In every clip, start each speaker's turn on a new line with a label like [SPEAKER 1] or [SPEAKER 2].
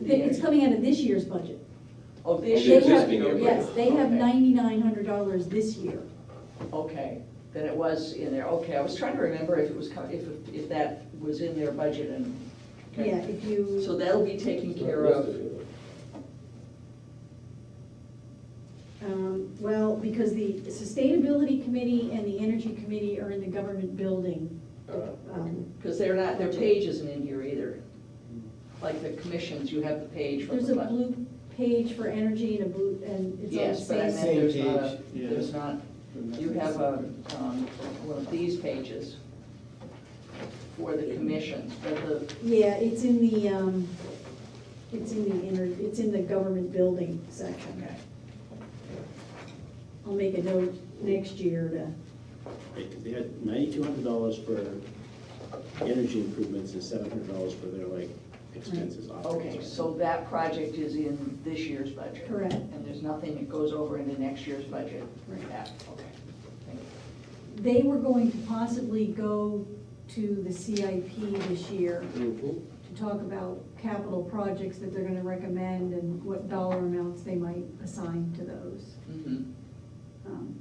[SPEAKER 1] They- It's coming out of this year's budget.
[SPEAKER 2] Oh,
[SPEAKER 1] They
[SPEAKER 2] this
[SPEAKER 3] The
[SPEAKER 2] year.
[SPEAKER 1] have-
[SPEAKER 3] existing year
[SPEAKER 1] Yes,
[SPEAKER 3] budget.
[SPEAKER 1] they have
[SPEAKER 2] Okay.
[SPEAKER 1] ninety-nine hundred dollars this year.
[SPEAKER 2] Okay, then it was in there, okay, I was trying to remember if it was, co- if, if that was in their budget and. okay.
[SPEAKER 1] Yeah, if
[SPEAKER 2] So
[SPEAKER 1] you,
[SPEAKER 2] that'll be taken care of,
[SPEAKER 1] um, well, because the Sustainability Committee and the Energy Committee are in the government building.
[SPEAKER 4] Uh,
[SPEAKER 1] Um,
[SPEAKER 2] because they're not, their page isn't in here either. Like the commissions, you have the page from
[SPEAKER 1] There's
[SPEAKER 2] the.
[SPEAKER 1] a
[SPEAKER 2] bu-
[SPEAKER 1] blue page for energy and a blue, and it's on the
[SPEAKER 2] Yes, but I meant
[SPEAKER 1] same.
[SPEAKER 2] there's
[SPEAKER 5] Same
[SPEAKER 2] not, a-
[SPEAKER 5] page, yeah.
[SPEAKER 2] there's not, you have a, um, one of these pages for the commissions, but the,
[SPEAKER 1] Yeah, it's in the, um, it's in the inner, it's in the government building section.
[SPEAKER 2] okay.
[SPEAKER 1] I'll make a note next year to,
[SPEAKER 4] They had ninety-two hundred dollars for energy improvements and seven hundred dollars for their like expenses. operating
[SPEAKER 2] Okay,
[SPEAKER 4] expenses.
[SPEAKER 2] so that project is in this year's budget?
[SPEAKER 1] Correct.
[SPEAKER 2] And there's nothing that goes over into next year's budget?
[SPEAKER 1] Right.
[SPEAKER 2] Yeah, okay. Thank you.
[SPEAKER 1] they were going to possibly go to the CIP this year to talk about capital projects that they're gonna recommend and what dollar amounts they might assign to those.
[SPEAKER 2] Mhm.
[SPEAKER 4] Mm-hmm.
[SPEAKER 1] Um,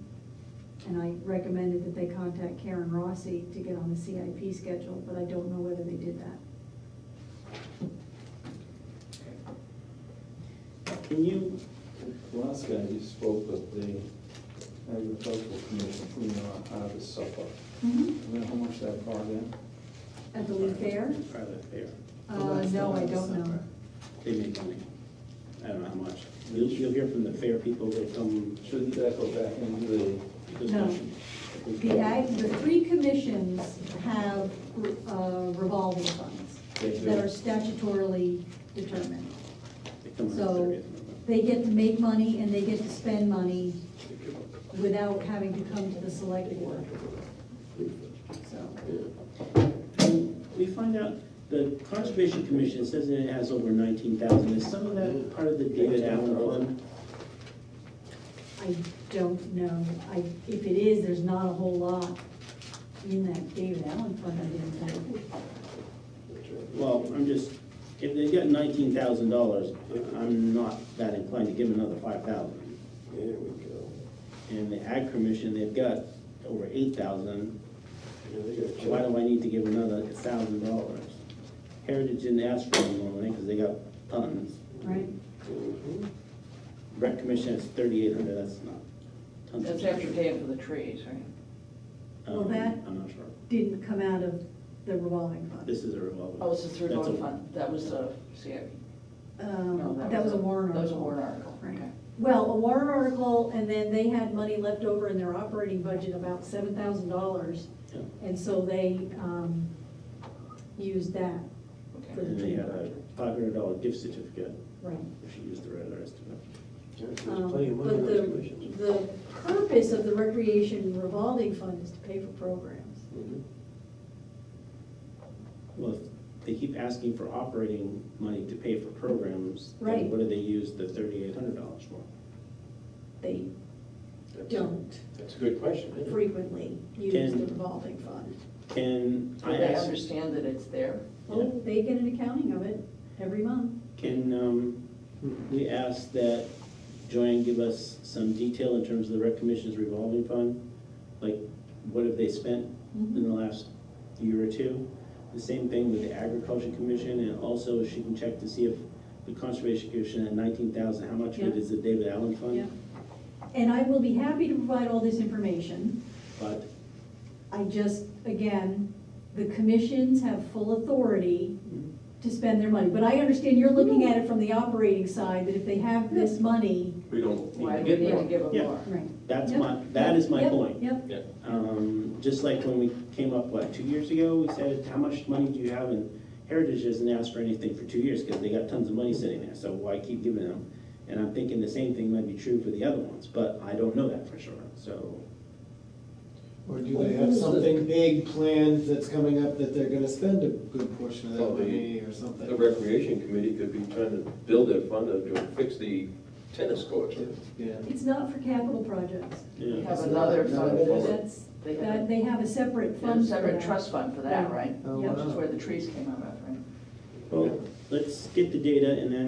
[SPEAKER 1] And I recommended that they contact Karen Rossi to get on the CIP schedule, but I don't know whether they did that.
[SPEAKER 4] Can you,
[SPEAKER 5] Last guy you spoke with the agricultural commission, you know, harvest supper. I don't know how much that brought in.
[SPEAKER 1] At the Lee Fair?
[SPEAKER 4] are they fair?
[SPEAKER 5] Well,
[SPEAKER 1] Uh,
[SPEAKER 5] that's
[SPEAKER 1] no,
[SPEAKER 5] not
[SPEAKER 1] I
[SPEAKER 5] the
[SPEAKER 1] don't know.
[SPEAKER 5] supper.
[SPEAKER 4] They make money. I don't know how much. You'll, you'll hear from the fair people, they'll come.
[SPEAKER 5] Shouldn't that go back into the,
[SPEAKER 1] No. The ag, the three commissions have uh, revolving funds
[SPEAKER 4] They do.
[SPEAKER 1] that are statutorily determined.
[SPEAKER 4] They come on the
[SPEAKER 1] So-
[SPEAKER 4] 30th.
[SPEAKER 1] They get to make money and they get to spend money without having to come to the select board, so.
[SPEAKER 4] Can We find out, the Conservation Commission says that it has over nineteen thousand. Is some of that part of the David Allen Fund?
[SPEAKER 1] I don't know. I, if it is, there's not a whole lot in that David Allen fund, I didn't think.
[SPEAKER 4] Well, I'm just, if they get nineteen thousand dollars, I'm not that inclined to give them another five thousand.
[SPEAKER 6] There we go.
[SPEAKER 4] And the Ag Commission, they've got over eight thousand.
[SPEAKER 6] Yeah, they got
[SPEAKER 4] Why do I need to give another thousand dollars? Heritage didn't ask for any more money because they got tons.
[SPEAKER 1] right?
[SPEAKER 6] Mhm.
[SPEAKER 4] Rec Commission has thirty-eight hundred, that's not tons. of
[SPEAKER 2] That's after paying for the trees, right?
[SPEAKER 4] Um,
[SPEAKER 1] Well, that-
[SPEAKER 4] I'm not sure.
[SPEAKER 1] Didn't come out of the revolving fund.
[SPEAKER 4] This is a revolving.
[SPEAKER 2] Oh, it's the through
[SPEAKER 4] That's
[SPEAKER 2] loan
[SPEAKER 4] a-
[SPEAKER 2] fund, that was the CIP. No,
[SPEAKER 1] Um, that was a warrant article.
[SPEAKER 2] That was a warrant article,
[SPEAKER 1] Right.
[SPEAKER 2] okay.
[SPEAKER 1] Well, a warrant article, and then they had money left over in their operating budget, about seven thousand dollars.
[SPEAKER 4] Yeah.
[SPEAKER 1] And so they, um, used that,
[SPEAKER 2] Okay.
[SPEAKER 4] And they had a five hundred dollar gift certificate
[SPEAKER 1] right.
[SPEAKER 4] if you used the right estimate.
[SPEAKER 6] Yeah, There's
[SPEAKER 1] Um,
[SPEAKER 6] plenty of money
[SPEAKER 1] But
[SPEAKER 6] on
[SPEAKER 1] the,
[SPEAKER 6] those commissions.
[SPEAKER 1] the purpose of the recreation revolving fund is to pay for programs.
[SPEAKER 6] Mhm.
[SPEAKER 4] Well, if they keep asking for operating money to pay for programs. then
[SPEAKER 1] Right.
[SPEAKER 4] What do they use the thirty-eight hundred dollars for?
[SPEAKER 1] They
[SPEAKER 6] That's-
[SPEAKER 1] don't
[SPEAKER 6] That's a good question, isn't it?
[SPEAKER 1] frequently use the
[SPEAKER 4] Can-
[SPEAKER 1] revolving fund.
[SPEAKER 4] Can
[SPEAKER 2] Do
[SPEAKER 4] I
[SPEAKER 2] they
[SPEAKER 4] ask,
[SPEAKER 2] understand that it's there?
[SPEAKER 1] Oh, they get an accounting of it every month.
[SPEAKER 4] can, um, we ask that Joanne give us some detail in terms of the rec commission's revolving fund? Like, what have they spent
[SPEAKER 6] Mm-hmm.
[SPEAKER 4] in the last year or two? The same thing with the agriculture commission, and also she can check to see if the conservation commission at nineteen thousand, how much of it
[SPEAKER 1] Yeah.
[SPEAKER 4] is the David Allen fund?
[SPEAKER 1] Yeah. And I will be happy to provide all this information.
[SPEAKER 4] But
[SPEAKER 1] I just, again, the commissions have full authority to spend their money. But I understand you're looking at it from the operating side, that if they have this money.
[SPEAKER 6] We don't
[SPEAKER 2] Why
[SPEAKER 6] need
[SPEAKER 2] do we need
[SPEAKER 6] to get
[SPEAKER 2] to
[SPEAKER 6] more.
[SPEAKER 2] give them
[SPEAKER 4] Yeah.
[SPEAKER 2] more?
[SPEAKER 1] Right.
[SPEAKER 4] that's
[SPEAKER 1] Yep.
[SPEAKER 4] my, that is my
[SPEAKER 1] Yep,
[SPEAKER 4] point.
[SPEAKER 1] Yep,
[SPEAKER 4] Um, just like when we came up, what, two years ago, we said, how much money do you have? And Heritage hasn't asked for anything for two years because they got tons of money sitting there, so why keep giving them? And I'm thinking the same thing might be true for the other ones, but I don't know that for sure, so.
[SPEAKER 5] or do they have something big planned that's coming up that they're gonna spend a good portion of that
[SPEAKER 6] Well, the-
[SPEAKER 5] money or something?
[SPEAKER 6] The recreation committee could be trying to build their fund to fix the tennis courts.
[SPEAKER 5] Yeah.
[SPEAKER 1] it's not for capital projects.
[SPEAKER 2] They
[SPEAKER 4] Yeah,
[SPEAKER 2] have another
[SPEAKER 5] No,
[SPEAKER 2] fund
[SPEAKER 5] it
[SPEAKER 2] for
[SPEAKER 5] isn't.
[SPEAKER 2] that.
[SPEAKER 1] That's,
[SPEAKER 2] They
[SPEAKER 1] that,
[SPEAKER 2] have
[SPEAKER 1] they have a separate
[SPEAKER 2] a
[SPEAKER 1] fund for
[SPEAKER 2] separate
[SPEAKER 1] that.
[SPEAKER 2] trust fund for that, right?
[SPEAKER 5] Oh,
[SPEAKER 1] Yeah.
[SPEAKER 2] Which is
[SPEAKER 5] wow.
[SPEAKER 2] where the trees came out of, right?
[SPEAKER 4] well, let's get the data and then